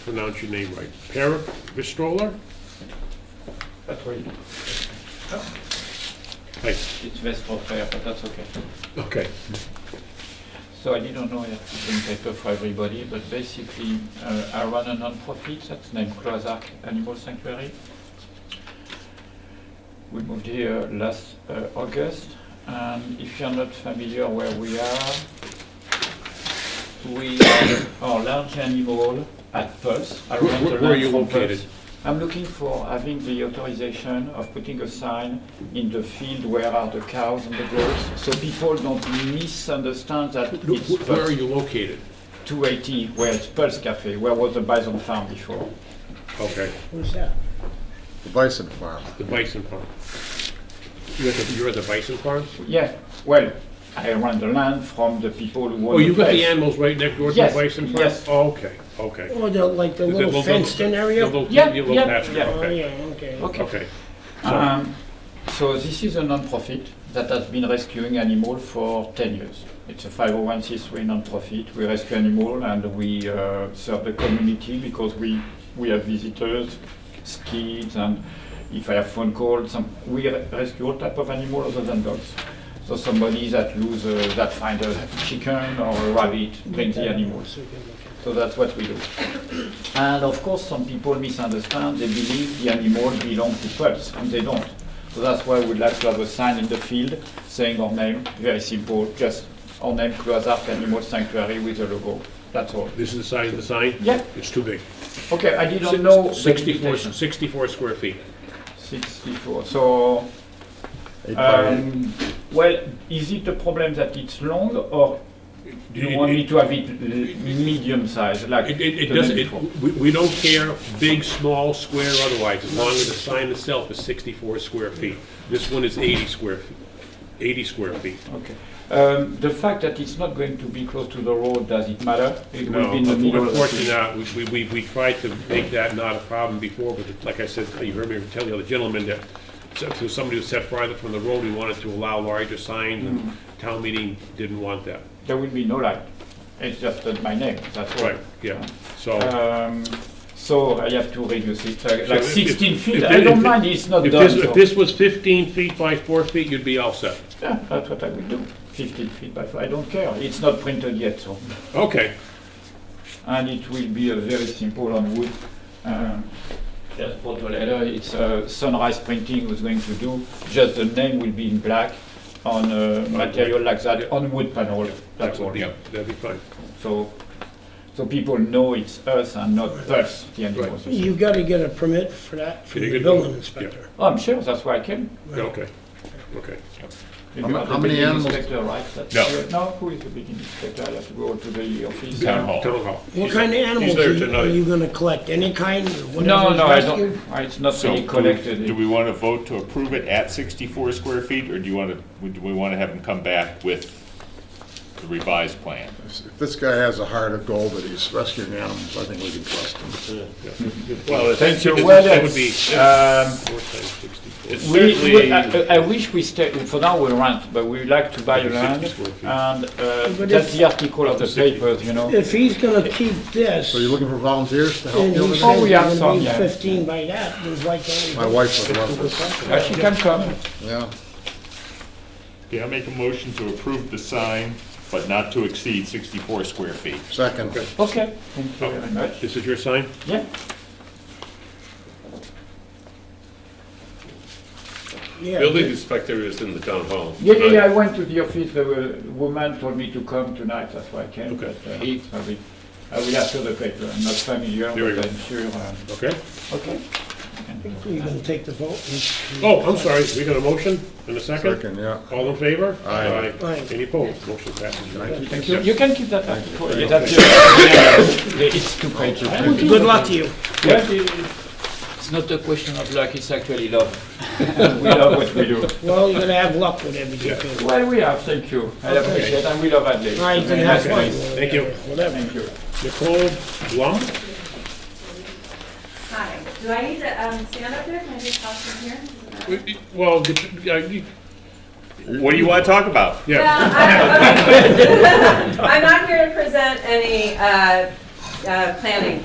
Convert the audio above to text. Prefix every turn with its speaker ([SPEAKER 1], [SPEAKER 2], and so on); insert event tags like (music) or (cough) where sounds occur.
[SPEAKER 1] pronounce your name right. Perik Vistrola?
[SPEAKER 2] That's where you,
[SPEAKER 1] Hi,
[SPEAKER 2] it's Westport Fair, but that's okay.
[SPEAKER 1] okay.
[SPEAKER 2] So I didn't know I have to bring paper for everybody, but basically, uh, I run a non-profit that's named Cloazac Animal Sanctuary. We moved here last uh, August, and if you're not familiar where we are, we have our large animal at Pulse. I
[SPEAKER 1] Where-
[SPEAKER 2] run the
[SPEAKER 1] where- where are
[SPEAKER 2] land
[SPEAKER 1] you
[SPEAKER 2] for Pulse.
[SPEAKER 1] located?
[SPEAKER 2] I'm looking for having the authorization of putting a sign in the field where are the cows and the goats, so people don't misunderstand that
[SPEAKER 1] Wh-
[SPEAKER 2] it's
[SPEAKER 1] wh- Where are
[SPEAKER 2] Pulse
[SPEAKER 1] you located?
[SPEAKER 2] 280, where it's Pulse Cafe, where was the bison farm before.
[SPEAKER 1] Okay,
[SPEAKER 3] Who's that?
[SPEAKER 4] The Bison Farm.
[SPEAKER 1] the bison farm. You're at the, you're at the bison farm?
[SPEAKER 2] Yeah, well, I run the land from the people who
[SPEAKER 1] Oh,
[SPEAKER 2] own the
[SPEAKER 1] you got the
[SPEAKER 2] place.
[SPEAKER 1] animals right next door to the
[SPEAKER 2] Yes,
[SPEAKER 1] bison farm?
[SPEAKER 2] yes.
[SPEAKER 1] Oh, Okay, okay.
[SPEAKER 3] Or the, like, the
[SPEAKER 1] Is it
[SPEAKER 3] little
[SPEAKER 1] little-
[SPEAKER 3] fenced-in area?
[SPEAKER 1] Your little-
[SPEAKER 2] Yeah,
[SPEAKER 1] your little
[SPEAKER 2] yeah,
[SPEAKER 1] pasture,
[SPEAKER 2] yeah.
[SPEAKER 3] Oh,
[SPEAKER 1] Okay,
[SPEAKER 3] yeah, okay.
[SPEAKER 2] Okay,
[SPEAKER 1] okay.
[SPEAKER 2] um, so this is a non-profit that has been rescuing animal for 10 years. It's a 501c3 non-profit. We rescue animal and we uh, serve the community because we, we have visitors, kids, and if I have phone calls, some, we re- rescue all type of animal other than dogs. So somebody that lose, uh, that find a chicken or a rabbit, bring the animals. So that's what we do. And of course, some people misunderstand, they believe the animals belong to Pulse, and they don't. So that's why we'd like to have a sign in the field saying our name, very simple, just our name, Cloisarc Animal Sanctuary with a logo. That's all.
[SPEAKER 1] This is the size of the sign?
[SPEAKER 2] Yeah.
[SPEAKER 1] It's too big.
[SPEAKER 2] Okay, I didn't know. the
[SPEAKER 1] Sixty-four,
[SPEAKER 2] limitation.
[SPEAKER 1] sixty-four square feet.
[SPEAKER 2] 64. So,
[SPEAKER 4] Eight by eight.
[SPEAKER 2] um, well, is it a problem that it's long or do
[SPEAKER 1] It-
[SPEAKER 2] you want me
[SPEAKER 1] it-
[SPEAKER 2] to have it l- medium size like
[SPEAKER 1] It, it, it
[SPEAKER 2] the
[SPEAKER 1] doesn't,
[SPEAKER 2] name
[SPEAKER 1] it,
[SPEAKER 2] before?
[SPEAKER 1] we, we don't care, big, small, square, otherwise, as long as the sign itself is sixty-four square feet. This one is eighty square, feet. eighty square feet.
[SPEAKER 2] Okay. Um, The fact that it's not going to be close to the road, does it matter? It will
[SPEAKER 1] No,
[SPEAKER 2] be in the middle of the
[SPEAKER 1] unfortunately
[SPEAKER 2] street.
[SPEAKER 1] not, we, we, we tried to make that not a problem before, but like I said, you heard me tell the other gentleman that so- to somebody who set farther from the road, we wanted to allow larger signs,
[SPEAKER 2] Hmm.
[SPEAKER 1] and town meeting didn't want that.
[SPEAKER 2] There will be no light. It's just that my name, that's all.
[SPEAKER 1] Right, yeah, so.
[SPEAKER 2] Um, So I have to reduce it, like-
[SPEAKER 1] so
[SPEAKER 2] uh, like
[SPEAKER 1] if- if-
[SPEAKER 2] 16 feet.
[SPEAKER 1] if
[SPEAKER 2] I
[SPEAKER 1] thi- if
[SPEAKER 2] don't
[SPEAKER 1] thi-
[SPEAKER 2] mind, it's not
[SPEAKER 1] if
[SPEAKER 2] done.
[SPEAKER 1] this- If
[SPEAKER 2] so-
[SPEAKER 1] this was fifteen feet by four feet, you'd be all set.
[SPEAKER 2] Yeah, that's what I will do. 15 feet by 5, I don't care. It's not printed yet, so.
[SPEAKER 1] Okay,
[SPEAKER 2] and it will be a very simple on wood. um, Just for the letter, it's uh, Sunrise Printing who's going to do, just the name will be in black on uh, material like that, on wood panel, that's all.
[SPEAKER 1] yeah, that'd be fine.
[SPEAKER 2] So, so people know it's us and not us, the animals.
[SPEAKER 3] You gotta get a permit for that from
[SPEAKER 1] Yeah, you
[SPEAKER 3] the
[SPEAKER 1] could-
[SPEAKER 3] building
[SPEAKER 1] yeah.
[SPEAKER 3] inspector.
[SPEAKER 2] Oh, I'm sure, that's why I came.
[SPEAKER 1] Okay, okay.
[SPEAKER 2] You
[SPEAKER 4] How
[SPEAKER 2] are
[SPEAKER 4] ma-
[SPEAKER 2] the
[SPEAKER 4] how many
[SPEAKER 2] building
[SPEAKER 4] animals-
[SPEAKER 2] Inspector, right? That's
[SPEAKER 1] No.
[SPEAKER 2] sure. No, who is the building inspector? I have to go to the office.
[SPEAKER 1] Town hall. Town hall.
[SPEAKER 3] What kind of animals
[SPEAKER 1] there
[SPEAKER 3] are you-
[SPEAKER 1] tonight.
[SPEAKER 3] are you gonna collect? Any kind, whatever
[SPEAKER 2] No, no, I don't,
[SPEAKER 3] rescued?
[SPEAKER 2] I- it's not
[SPEAKER 5] So
[SPEAKER 2] really
[SPEAKER 5] do we-
[SPEAKER 2] collected.
[SPEAKER 5] Do we want to vote to approve it at 64 square feet, or do you want to, do we want to have them come back with the revised plan?
[SPEAKER 4] If this guy has a heart of gold that he's rescuing animals, I think we can trust him.
[SPEAKER 1] Well,
[SPEAKER 2] Thank you, well,
[SPEAKER 1] That would be
[SPEAKER 2] um,
[SPEAKER 1] four times sixty-four.
[SPEAKER 5] It's
[SPEAKER 2] We, uh, we,
[SPEAKER 5] certainly,
[SPEAKER 2] I, I- I wish we stay, for now we rent, but we like to buy
[SPEAKER 1] Maybe 60
[SPEAKER 2] land,
[SPEAKER 1] square feet.
[SPEAKER 2] and uh,
[SPEAKER 3] But
[SPEAKER 2] that's
[SPEAKER 3] if-
[SPEAKER 2] the article of the papers, you know.
[SPEAKER 3] If he's gonna keep this,
[SPEAKER 4] So you're looking for volunteers to help
[SPEAKER 3] and
[SPEAKER 4] you
[SPEAKER 3] he
[SPEAKER 4] with
[SPEAKER 2] Oh,
[SPEAKER 3] says
[SPEAKER 4] that?
[SPEAKER 2] we
[SPEAKER 3] he's
[SPEAKER 2] have
[SPEAKER 3] gonna
[SPEAKER 2] some,
[SPEAKER 3] be
[SPEAKER 2] yeah.
[SPEAKER 3] fifteen by that, there's like only.
[SPEAKER 4] My wife would love this.
[SPEAKER 2] Uh, She can come,
[SPEAKER 4] Yeah.
[SPEAKER 5] yeah, I'll make a motion to approve the sign, but not to exceed 64 square feet.
[SPEAKER 4] Second,
[SPEAKER 2] okay, thank you very much,
[SPEAKER 1] This is your sign?
[SPEAKER 2] yeah.
[SPEAKER 3] Yeah.
[SPEAKER 6] Building inspector is in the town hall.
[SPEAKER 2] Yeah, yeah, yeah, I went to the office, the uh, woman told me to come tonight, that's why I came, but
[SPEAKER 1] Okay.
[SPEAKER 2] uh, I will, I will ask her the paper, I'm not familiar,
[SPEAKER 1] There we
[SPEAKER 2] but
[SPEAKER 1] go.
[SPEAKER 2] I'm sure, uh,
[SPEAKER 1] Okay.
[SPEAKER 2] okay.
[SPEAKER 3] You gonna take the vote?
[SPEAKER 1] Oh, I'm sorry, we got a motion and a second?
[SPEAKER 4] second, yeah.
[SPEAKER 1] All in favor?
[SPEAKER 4] Aye.
[SPEAKER 3] Aye.
[SPEAKER 1] Any opposed? Motion passes.
[SPEAKER 2] Thank you, you can keep that article, yeah, that's, your- yeah, it's two pages.
[SPEAKER 3] Good luck to you.
[SPEAKER 2] Yeah, It's not a question of luck, it's actually love. (laughs) We love what we do.
[SPEAKER 3] Well, you're gonna have luck with everything. too.
[SPEAKER 2] Well, we have, thank you. I appreciate, and we love Adelaide.
[SPEAKER 3] All right, you can have
[SPEAKER 2] Nice
[SPEAKER 3] fun.
[SPEAKER 2] place.
[SPEAKER 1] Thank you.
[SPEAKER 3] Whatever.
[SPEAKER 2] Thank you.
[SPEAKER 1] Nicole Blum?
[SPEAKER 7] Hi, do I need to um, stand up there? Can I just talk from here?
[SPEAKER 1] Well, did you- I- you-
[SPEAKER 5] What do you want to talk about?
[SPEAKER 1] yeah,
[SPEAKER 7] Well, (laughs) I'm- okay. I'm not here to present any uh, uh, planning